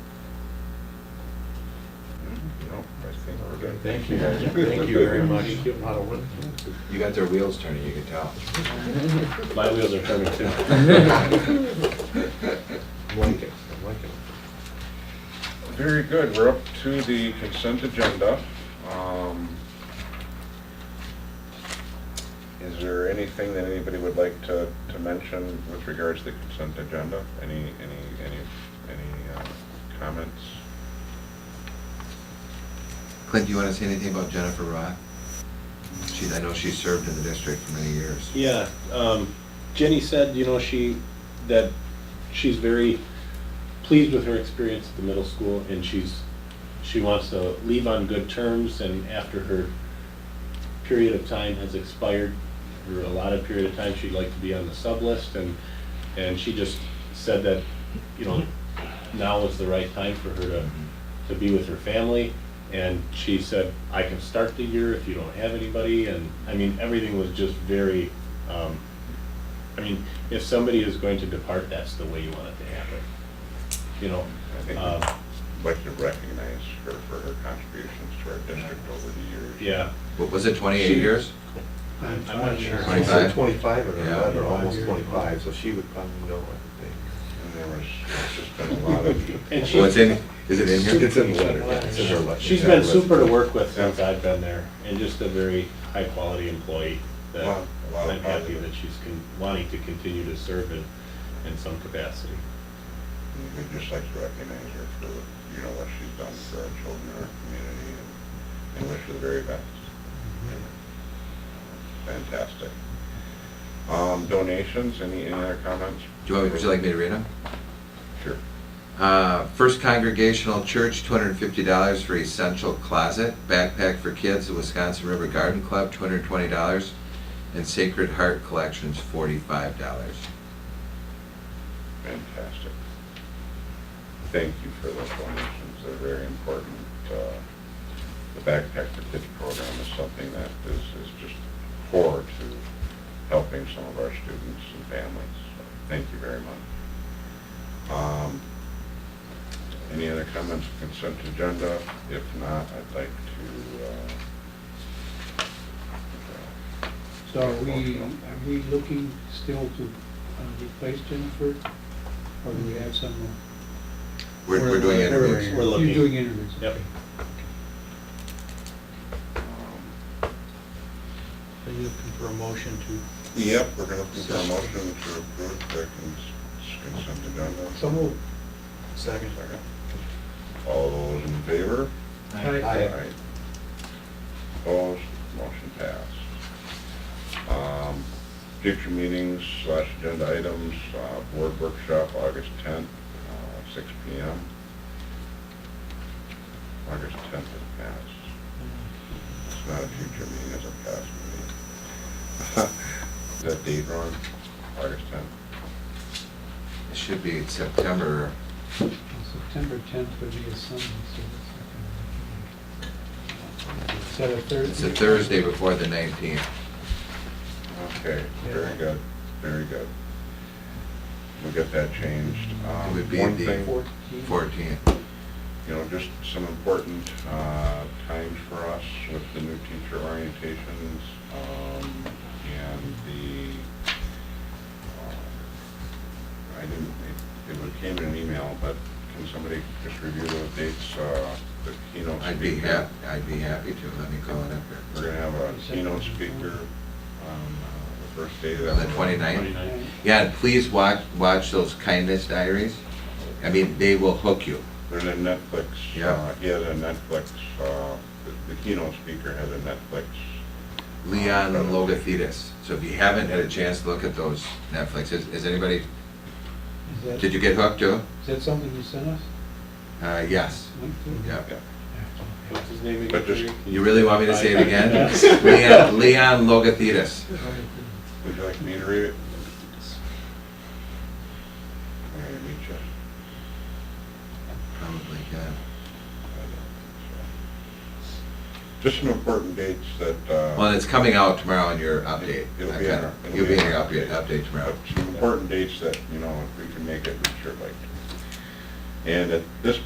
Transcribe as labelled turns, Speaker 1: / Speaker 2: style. Speaker 1: Okay.
Speaker 2: Thank you, guys. thank you very much.
Speaker 1: You got their wheels turning, you can tell.
Speaker 3: My wheels are turning too.
Speaker 2: Like it, I like it.
Speaker 4: Very good, we're up to the consent agenda. Um, Is there anything that anybody would like to, to mention with regards to the consent agenda? Any, any, any, any uh, comments?
Speaker 1: Clint, do you want to say anything about Jennifer Roth? She's, I know she served in the district for many years.
Speaker 3: Yeah, um, Jenny said, you know, she, that she's very pleased with her experience at the middle school, and she's, she wants to leave on good terms, and after her period of time has expired, or a lot of period of time, she'd like to be on the sub list, and, and she just said that, you know, now is the right time for her to, to be with her family, and she said, I can start the year if you don't have anybody, and, I mean, everything was just very, um, I mean, if somebody is going to depart, that's the way you want it to happen, you know?
Speaker 4: I think
Speaker 3: Um,
Speaker 4: we'd like to recognize her for her contributions to our district over the years.
Speaker 3: Yeah,
Speaker 1: What was it, 28 years?
Speaker 3: I'm not sure.
Speaker 2: She said Twenty-five or
Speaker 1: Yeah.
Speaker 2: eleven, or almost twenty-five, so she would probably know, I think.
Speaker 4: And there was, it's just been a lot of,
Speaker 3: and
Speaker 1: Well, it's
Speaker 3: she,
Speaker 1: in, is it in here?
Speaker 2: It's in the letter, yeah, it's in her letter.
Speaker 3: she's been super to work with since I've been there, and just a very high-quality employee that
Speaker 4: Wow, wow,
Speaker 3: I'm happy
Speaker 4: positive.
Speaker 3: that she's con- wanting to continue to serve in, in some capacity.
Speaker 4: we'd just like to recognize her for, you know, what she's done for our children, our community, and- and wish her the very best. Fantastic. Um, donations, any, any other comments?
Speaker 1: Do you want, me- would you like me to read them?
Speaker 4: Sure.
Speaker 1: Uh, First Congregational Church, two hundred and fifty dollars for essential closet, backpack for kids, the Wisconsin River Garden Club, two hundred and twenty dollars, and Sacred Heart Collections, forty-five dollars.
Speaker 4: Fantastic. Thank you for those donations, they're very important. Uh, The Backpack for Kids program is something that is, is just core to helping some of our students and families. So Thank you very much. Um, Any other comments, on consent agenda? If not, I'd like to, uh, uh,
Speaker 5: So are we, are we looking still to uh, replace Jennifer? Or do we have someone?
Speaker 1: We're, we're doing interviews.
Speaker 3: We're looking.
Speaker 5: You're doing interviews?
Speaker 3: Yep.
Speaker 4: um,
Speaker 5: Are you looking for a motion to?
Speaker 4: Yep, we're gonna look for a motion to approve the cons- consent agenda.
Speaker 5: moved.
Speaker 2: Second.
Speaker 4: Second. All those in favor?
Speaker 5: Aye.
Speaker 4: Opposed, motion passed. Um, Future meetings slash agenda items, uh, board workshop, August tenth, uh, six P M. August tenth is passed.
Speaker 5: Uh,
Speaker 4: It's not a future meeting, it's a past meeting. Is that date wrong? August tenth?
Speaker 1: It should be September,
Speaker 5: September tenth would be a Sunday, so that's not gonna work. Is that a Thursday?
Speaker 1: it's a Thursday before the nineteenth.
Speaker 4: Okay, very
Speaker 5: Yeah.
Speaker 4: good, very good. We'll get that changed.
Speaker 1: It
Speaker 4: Um,
Speaker 1: would be
Speaker 4: one
Speaker 1: the
Speaker 4: thing-
Speaker 5: Fourteenth?
Speaker 1: Fourteenth.
Speaker 4: you know, just some important uh, times for us with the new teacher orientations um, and the, uh, I didn't, it- it came in an email, but can somebody just review those dates, uh, the keynote
Speaker 1: I'd be
Speaker 4: speaker?
Speaker 1: hap, I'd be happy to, let me call it up
Speaker 4: We're gonna
Speaker 1: here.
Speaker 4: have a keynote speaker on uh, the first day of
Speaker 1: On the
Speaker 4: that month.
Speaker 1: 29th?
Speaker 5: And
Speaker 1: Yeah, and please watch, watch those kindness diaries. I mean, they will hook you.
Speaker 4: There's a Netflix,
Speaker 1: Yeah.
Speaker 4: uh, he has a Netflix, uh, the- the keynote speaker has a Netflix
Speaker 1: Leon Logothetis. So if you haven't had a chance to look at those Netflix, is, is anybody,
Speaker 5: Is that,
Speaker 1: did you get hooked too?
Speaker 5: is that something you sent us?
Speaker 1: Uh, yes,
Speaker 5: Link to?
Speaker 1: yeah.
Speaker 3: What's his name again?
Speaker 4: But just-
Speaker 3: Jerry?
Speaker 1: You really want me to say it again?
Speaker 3: Yes.
Speaker 1: Leon, Leon Logothetis.
Speaker 4: Would you like me to read it? All right, let me check.
Speaker 1: Probably, yeah.
Speaker 4: I don't think so. uh, Just some important dates that, uh.
Speaker 1: Well, it's coming out tomorrow in your update.
Speaker 4: It'll
Speaker 1: I
Speaker 4: be in
Speaker 1: kinda-
Speaker 4: our- it'll
Speaker 1: You'll
Speaker 4: be
Speaker 1: be
Speaker 4: in
Speaker 1: in your
Speaker 4: our
Speaker 1: update, update tomorrow.
Speaker 4: Some important dates that, you know, if we can make it, we sure like. to. And at this